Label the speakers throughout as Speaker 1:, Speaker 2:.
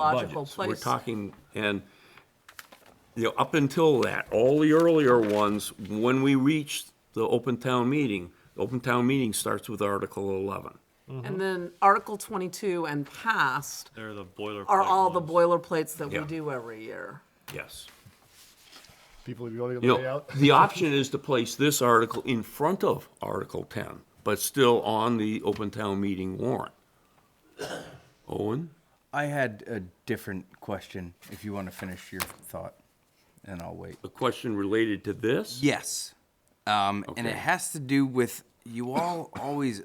Speaker 1: logical
Speaker 2: budgets. We're
Speaker 1: place.
Speaker 2: talking, and, you know, up until that, all the earlier ones, when we reach the open town meeting, the open town meeting starts with Article 11.
Speaker 1: And then Article twenty-two and past
Speaker 3: They're Mm-hmm. the boilerplate.
Speaker 1: are all the
Speaker 3: ones.
Speaker 1: boilerplates that we
Speaker 2: Yeah.
Speaker 1: do every year.
Speaker 2: Yes.
Speaker 4: People, you want to
Speaker 2: You
Speaker 4: lay
Speaker 2: know,
Speaker 4: out?
Speaker 2: the option is to place this article in front of Article 10, but still on the open town meeting warrant. Owen?
Speaker 5: I had a different question. If you want to finish your thought, and I'll wait.
Speaker 2: a question related to this?
Speaker 5: Yes, um, and it
Speaker 2: Okay.
Speaker 5: has to do with you all always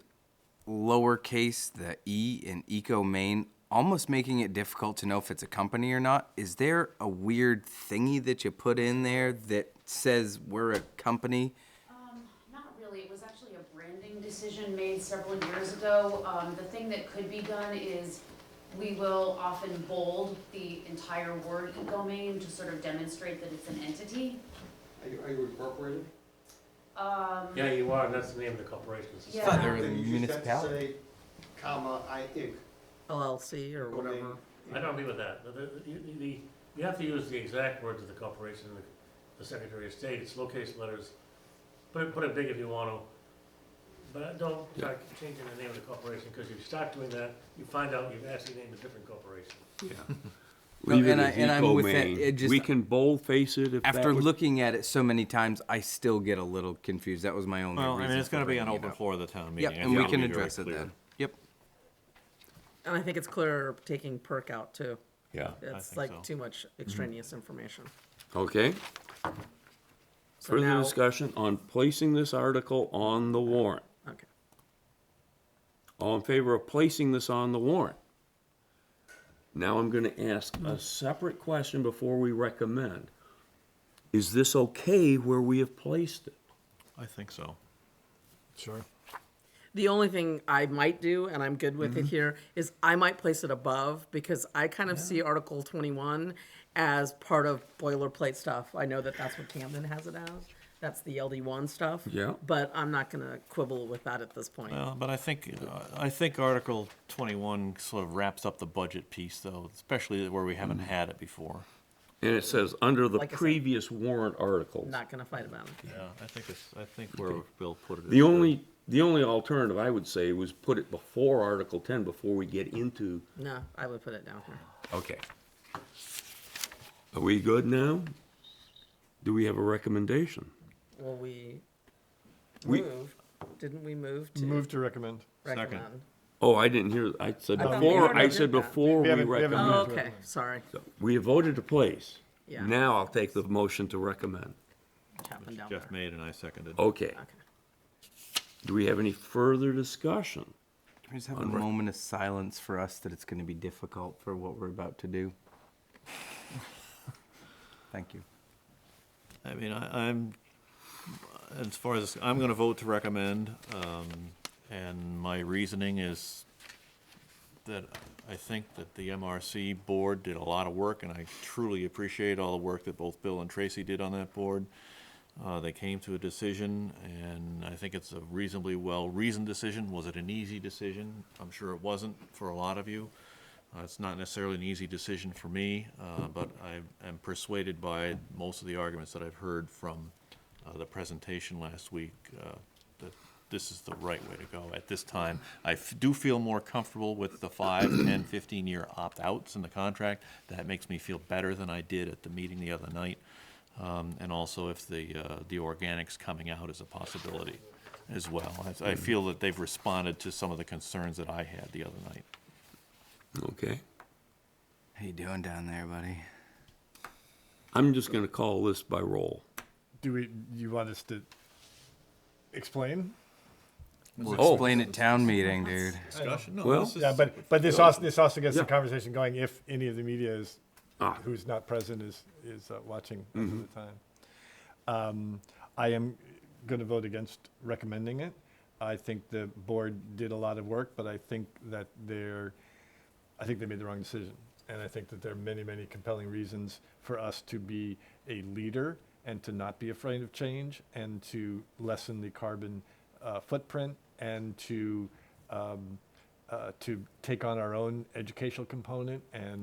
Speaker 5: lowercase the e in eco main, almost making it difficult to know if it's a company or not. Is there a weird thingy that you put in there that says we're a company?
Speaker 6: Not really, it was actually a branding decision made several years ago. Um, the thing that could be done is we will often bold the entire word domain to sort of demonstrate that it's an entity.
Speaker 7: Are you, are you incorporated?
Speaker 8: Yeah, you are, and that's the name of the corporation. It's a
Speaker 6: Yeah.
Speaker 5: thought they were the
Speaker 7: Then you just have to
Speaker 5: municipality.
Speaker 7: say, Comma, I Inc.
Speaker 1: LLC or
Speaker 7: Or they-
Speaker 1: whatever.
Speaker 8: I don't agree with that. The- the- you- the- you have to use the exact words of the corporation, the- the Secretary of State, it's location letters. Put it, put it big if you want to, but don't start changing the name of the corporation, because if you start doing that, you find out you've actually named a different corporation.
Speaker 5: No,
Speaker 2: Leave it
Speaker 5: and I-
Speaker 2: as
Speaker 5: and I'm with that.
Speaker 2: eco-main.
Speaker 5: It just-
Speaker 2: We can boldface it if that
Speaker 5: After
Speaker 2: would-
Speaker 5: looking at it so many times, I still get a little confused. That was my only.
Speaker 3: Well, I mean,
Speaker 5: reason
Speaker 3: it's
Speaker 5: for
Speaker 3: gonna be an
Speaker 5: bringing it
Speaker 3: open
Speaker 5: up.
Speaker 3: floor of the town meeting.
Speaker 5: Yep,
Speaker 3: I
Speaker 5: and we
Speaker 3: think
Speaker 5: can
Speaker 3: it'll be very
Speaker 5: address it
Speaker 3: clear.
Speaker 5: then. Yep.
Speaker 1: And I think it's clear taking perk out too.
Speaker 2: Yeah,
Speaker 1: It's
Speaker 3: think
Speaker 1: like
Speaker 3: so. Mm-hmm.
Speaker 1: too much extraneous information.
Speaker 2: okay.
Speaker 1: So
Speaker 2: Further
Speaker 1: now-
Speaker 2: discussion on placing this article on the warrant.
Speaker 1: Okay.
Speaker 2: All in favor of placing this on the warrant? Now I'm gonna ask a separate question before we recommend. Is this okay where we have placed it?
Speaker 3: I think so.
Speaker 1: The only thing I might do, and I'm good with
Speaker 3: Mm-hmm.
Speaker 1: it here, is I might place it above because I kind of see Article 21 as part of boilerplate stuff. I know that that's what Camden has it as. That's the LD1 stuff.
Speaker 2: Yeah.
Speaker 1: But I'm not going to quibble with that at this point.
Speaker 3: Well, but I think, uh, I think Article twenty-one sort of wraps up the budget piece, though, especially where we haven't had it before.
Speaker 2: And it says, under the
Speaker 1: Like I said.
Speaker 2: previous warrant articles.
Speaker 1: I'm not going to fight about it.
Speaker 3: Yeah, I think it's, I think where Bill put it.
Speaker 2: The only, the only alternative I would say was put it before Article ten, before we get into.
Speaker 1: No, I would put it down here.
Speaker 2: Okay. Are we good now? Do we have a recommendation?
Speaker 1: Well, we
Speaker 2: We-
Speaker 1: moved. Didn't we move to
Speaker 4: Move to recommend.
Speaker 1: recommend?
Speaker 2: Oh, I didn't hear, I said
Speaker 1: thought we
Speaker 2: before,
Speaker 1: already
Speaker 2: I
Speaker 1: did
Speaker 2: said
Speaker 1: that.
Speaker 2: before
Speaker 4: We
Speaker 2: we
Speaker 4: haven't- we haven't
Speaker 2: recommend.
Speaker 1: Oh,
Speaker 4: to
Speaker 1: okay. Sorry.
Speaker 2: We have voted to place.
Speaker 1: Yeah.
Speaker 2: Now I'll take the motion to recommend.
Speaker 1: It happened down
Speaker 3: Jeff
Speaker 1: there.
Speaker 3: made and I seconded.
Speaker 2: Okay.
Speaker 1: Okay.
Speaker 2: Do we have any further discussion?
Speaker 5: Can we just have a moment of silence for us that it's going to be difficult for what we're about to do? Thank you.
Speaker 3: I mean, I, I'm, as far as, I'm gonna vote to recommend, um, and my reasoning is that I think that the MRC board did a lot of work, and I truly appreciate all the work that both Bill and Tracy did on that board. Uh, they came to a decision, and I think it's a reasonably well-reasoned decision. Was it an easy decision? I'm sure it wasn't for a lot of you. Uh, It's not necessarily an easy decision for me, uh, but I am persuaded by most of the arguments that I've heard from uh, the presentation last week uh, that this is the right way to go at this time. I f- do feel more comfortable with the five, 10, 15-year opt-outs in the contract. That makes me feel better than I did at the meeting the other night. Um, And also if the, uh, the organics coming out is a possibility as well. I-
Speaker 4: Mm.
Speaker 3: I feel that they've responded to some of the concerns that I had the other night.
Speaker 2: Okay.
Speaker 5: How you doing down there, buddy?
Speaker 2: I'm just gonna call this by roll.
Speaker 4: Do we, you want us to explain?
Speaker 5: We'll
Speaker 2: Oh.
Speaker 5: explain at town meeting, dude.
Speaker 3: discussion. No,
Speaker 2: Well-
Speaker 3: this is-
Speaker 4: Yeah, but, but this also, this also gets the
Speaker 2: Yeah.
Speaker 4: conversation going if any of the media is,
Speaker 2: Ah. Mm-hmm.
Speaker 4: who's not present is, is uh, watching at the time. Um, I am going to vote against recommending it. I think the board did a lot of work, but I think that they're, I think they made the wrong decision. And I think that there are many, many compelling reasons for us to be a leader and to not be afraid of change and to lessen the carbon uh, footprint and to, um, uh, to take on our own educational component and